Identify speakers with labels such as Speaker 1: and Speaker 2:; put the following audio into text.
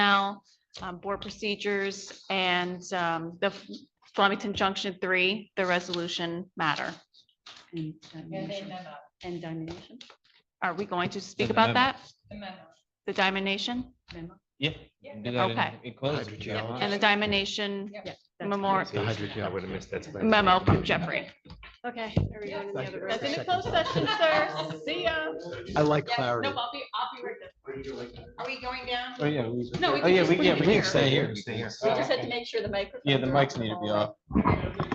Speaker 1: um, board procedures and um, the Flemington Junction Three, the resolution matter.
Speaker 2: And uh,
Speaker 3: Yeah, they
Speaker 2: domination.
Speaker 3: memo,
Speaker 2: And domination
Speaker 1: Are we going to speak
Speaker 4: the
Speaker 1: about
Speaker 4: memo.
Speaker 1: that?
Speaker 3: the memo.
Speaker 1: The diamond
Speaker 2: memo.
Speaker 4: Yeah.
Speaker 3: Yeah.
Speaker 4: do that in-
Speaker 1: Okay.
Speaker 4: in closed.
Speaker 5: Hydrogel. Yeah.
Speaker 1: and the diamond
Speaker 2: That's
Speaker 1: Memorial-
Speaker 2: fine.
Speaker 5: The hydrogel. I would have missed that.
Speaker 1: memo from Jeffrey.
Speaker 2: Okay.
Speaker 3: Yeah.
Speaker 2: everyone in the other
Speaker 1: That's in
Speaker 2: room.
Speaker 1: a closed session, sir. See ya.
Speaker 5: I like
Speaker 3: Yes,
Speaker 5: clarity.
Speaker 3: No, I'll be, I'll be right there. Are we going down?
Speaker 4: Oh, yeah. we-
Speaker 3: No, we
Speaker 4: Oh,
Speaker 3: can
Speaker 4: yeah,
Speaker 3: just
Speaker 4: we,
Speaker 3: put
Speaker 4: yeah,
Speaker 3: it
Speaker 4: we can
Speaker 3: here.
Speaker 4: stay here.
Speaker 5: Stay here.
Speaker 3: We just had to make sure the microphone.
Speaker 4: Yeah, the mics need to be off.